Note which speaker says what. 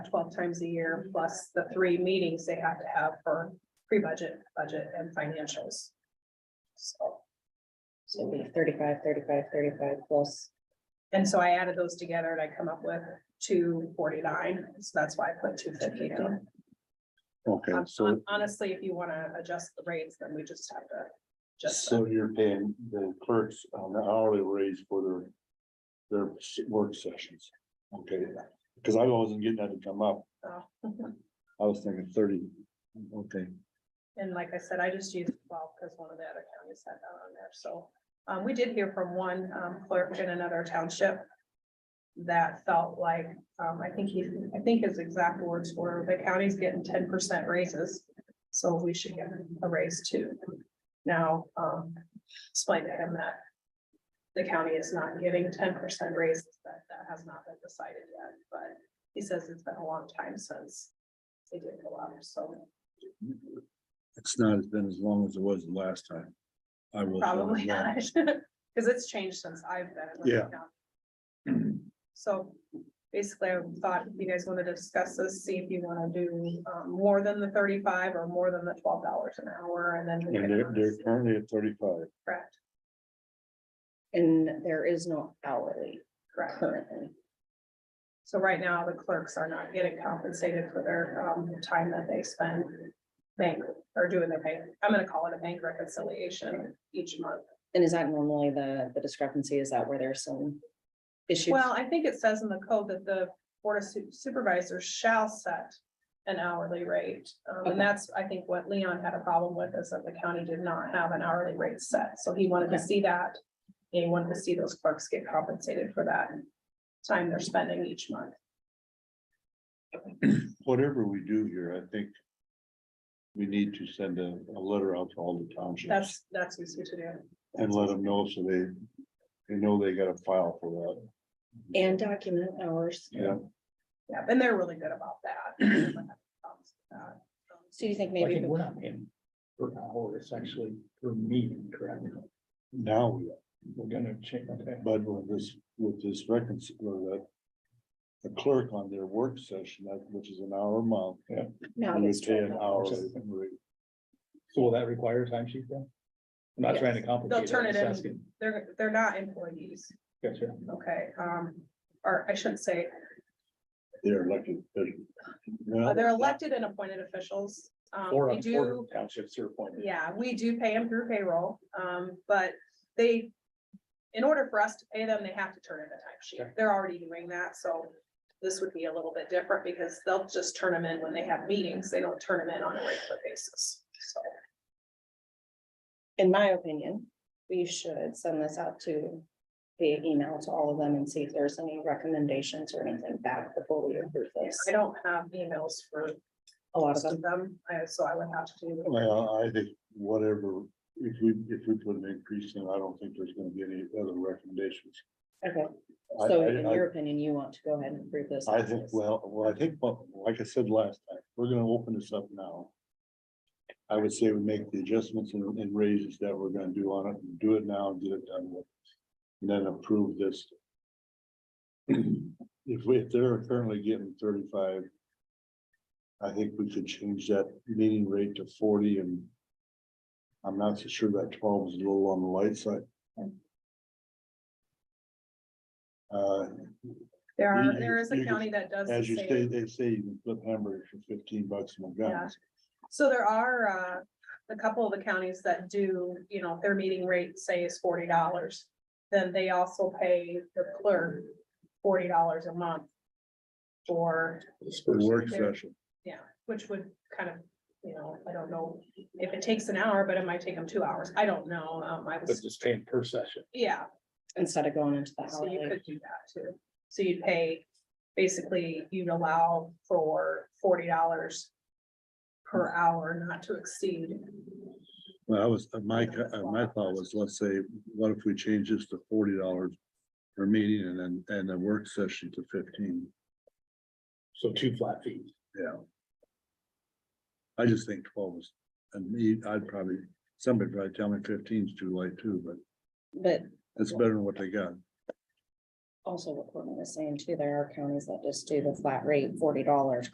Speaker 1: twelve times a year, plus the three meetings they have to have for pre-budget, budget and financials. So,
Speaker 2: So it'd be 35, 35, 35 plus.
Speaker 1: and so I added those together and I come up with two forty-nine, so that's why I put two fifty down. Um,
Speaker 3: Okay,
Speaker 1: Hon-
Speaker 3: so,
Speaker 1: Honestly, if you wanna adjust the rates, then we just have to. Just,
Speaker 3: so you're paying the clerks on the hourly raise for their, their s- work sessions. Okay, because I wasn't getting that to come up.
Speaker 1: Oh.
Speaker 3: I was thinking thirty, okay.
Speaker 1: and like I said, I just used twelve because one of the other counties had that on there, so. Um, we did hear from one um, clerk in another township. That felt like, um, I think he, I think his exact words were, the county's getting ten percent raises. So we should get a raise too. Now, um, explain to him that. The county is not giving ten percent raises, that, that has not been decided yet, but he says it's been a long time since. They did go up, so
Speaker 3: It's not, it's been as long as it was the last time. I was. uh,
Speaker 1: Probably not,
Speaker 3: yeah.
Speaker 1: because it's changed since I've been.
Speaker 3: Yeah.
Speaker 1: So basically, I thought if you guys wanted to discuss this, see if you want to do um more than the thirty-five or more than the twelve dollars an hour and then. we
Speaker 3: And they're,
Speaker 1: can-
Speaker 3: they're currently at thirty-five.
Speaker 1: Correct,
Speaker 2: And there is no hourly
Speaker 1: correct.
Speaker 2: currently.
Speaker 1: So right now, the clerks are not getting compensated for their um time that they spend bank or doing their bank. I'm gonna call it a bank reconciliation each month.
Speaker 2: And is that normally the, the discrepancy? Is that where there's some issues?
Speaker 1: Well, I think it says in the code that the board of Su- supervisors shall set an hourly rate. Um,
Speaker 2: Okay.
Speaker 1: and that's, I think, what Leon had a problem with is that the county did not have an hourly rate set, so he wanted to
Speaker 2: Okay.
Speaker 1: see that. He wanted to see those clerks get compensated for that time they're spending each month.
Speaker 3: Whatever we do here, I think we need to send a, a letter out to all the townships.
Speaker 1: That's, that's what we should do.
Speaker 3: And let them know so they, they know they gotta file for that.
Speaker 2: And document hours.
Speaker 3: Yeah,
Speaker 1: Yeah, and they're really good about that.
Speaker 2: So you think
Speaker 4: I
Speaker 2: maybe,
Speaker 4: think we're not paying per hour, it's actually per meeting, correct?
Speaker 3: now we, are.
Speaker 4: We're gonna check, okay.
Speaker 3: but with this, with this reconcil, or that. The clerk on their work session, that which is an hour a month.
Speaker 2: no,
Speaker 3: we
Speaker 2: it's
Speaker 3: pay an hour.
Speaker 4: $12. So will that require a time sheet then? I'm not trying to
Speaker 1: They'll
Speaker 4: complicate.
Speaker 1: turn
Speaker 4: I'm
Speaker 1: it
Speaker 4: just
Speaker 1: in.
Speaker 4: asking.
Speaker 1: They're, they're not employees,
Speaker 4: Gotcha.
Speaker 1: okay, um, or I shouldn't say,
Speaker 3: They're elected. officials. Well,
Speaker 1: Uh, They're elected and appointed officials. Um,
Speaker 4: Or
Speaker 1: we
Speaker 4: on
Speaker 1: do,
Speaker 4: townships are appointed.
Speaker 1: yeah, we do pay them through payroll, um, but they, in order for us to pay them, they have to turn in a
Speaker 4: Sure.
Speaker 1: timesheet. They're already doing that, so this would be a little bit different because they'll just turn them in when they have meetings. They don't turn them in on a regular basis. So
Speaker 2: in my opinion, we should send this out to via email to all of them and see if there's any recommendations or anything back before we approve this.
Speaker 1: I don't have emails for
Speaker 2: A lot
Speaker 1: most
Speaker 2: of them.
Speaker 1: of them, I- so I would have to do.
Speaker 3: Well, I think whatever, if we, if we put an increase in, I don't think there's gonna be any other recommendations.
Speaker 2: Okay,
Speaker 3: I-
Speaker 2: so
Speaker 3: I-
Speaker 2: in
Speaker 3: I-
Speaker 2: your opinion, you want to go ahead and approve this?
Speaker 3: I think,
Speaker 2: as is.
Speaker 3: well, well, I think, well, like I said last time, we're gonna open this up now. I would say we make the adjustments and and raises that we're gonna do on it, do it now and get it done with. And then approve this. If we, if they're currently getting thirty-five. I think we could change that meeting rate to forty and. I'm not so sure that twelve is a little on the light side. Uh,
Speaker 1: There
Speaker 3: You-
Speaker 1: are,
Speaker 3: you-
Speaker 1: there is
Speaker 3: you
Speaker 1: a
Speaker 3: just-
Speaker 1: county that does.
Speaker 3: as you
Speaker 1: save-
Speaker 3: say, they say you can flip hamburgers for fifteen bucks in McDonald's.
Speaker 1: So there are, uh, a couple of the counties that do, you know, if their meeting rate, say, is forty dollars. Then they also pay the clerk forty dollars a month. For,
Speaker 3: The work
Speaker 1: There.
Speaker 3: session.
Speaker 1: yeah, which would kind of, you know, I don't know if it takes an hour, but it might take them two hours. I don't know. Um, I
Speaker 4: But
Speaker 1: was,
Speaker 4: just paying per session.
Speaker 1: yeah,
Speaker 2: Instead of going into the
Speaker 1: so you
Speaker 2: hourly,
Speaker 1: could do that too. So you'd pay, basically, you'd allow for forty dollars. Per hour, not to exceed.
Speaker 3: Well, I was, uh, my, co- uh, my thought was, let's say, what if we change this to forty dollars per meeting and then, and the work session to fifteen?
Speaker 4: So two flat fees.
Speaker 3: Yeah. I just think twelve is, and me, I'd probably, somebody probably tell me 15 is too light too, but
Speaker 2: but
Speaker 3: that's better than what they got.
Speaker 2: also what Courtney was saying too, there are counties that just do the flat rate, forty dollars